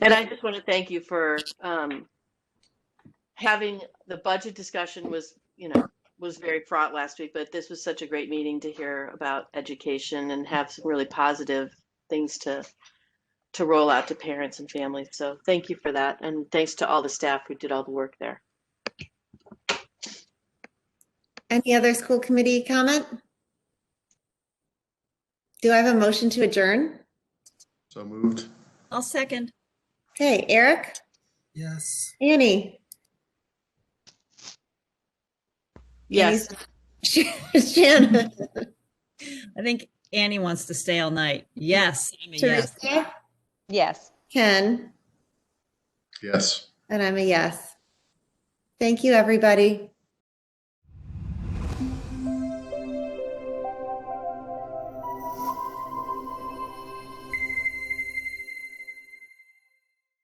And I just want to thank you for um, having the budget discussion was, you know, was very fraught last week, but this was such a great meeting to hear about education and have some really positive things to to roll out to parents and families. So thank you for that. And thanks to all the staff who did all the work there. Any other school committee comment? Do I have a motion to adjourn? So moved. I'll second. Okay, Eric, Yes. Annie? Yes. Annie's- Shannon? I think Annie wants to stay all night. Yes, I'm a yes. Teresa? Yes. Ken? Yes. And I'm a yes. Thank you, everybody.